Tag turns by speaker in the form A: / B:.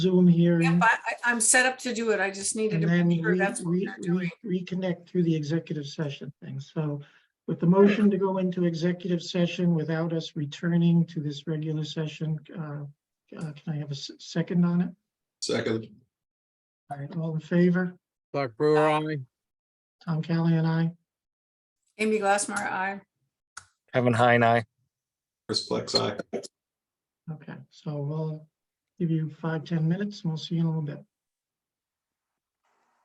A: Zoom
B: Yep,
A: hearing.
B: I, I- I'm set up to do it. I just needed
A: Mm-hmm. And
B: to
A: then
B: make
A: we
B: sure that's what
A: re-
B: we're doing.
A: re- reconnect through the executive session thing. So with the motion to go into executive session without us returning to this regular session, uh, uh, can I have a s- second on it?
C: Second,
A: All right, all in favor?
D: Clark Brewer, aye.
A: Tom Kelly and I.
B: Amy Glassmeyer, aye.
E: Kevin Heine, aye.
C: Chris Plex, aye.
A: Okay, so we'll give you five, ten minutes and we'll see you in a little bit.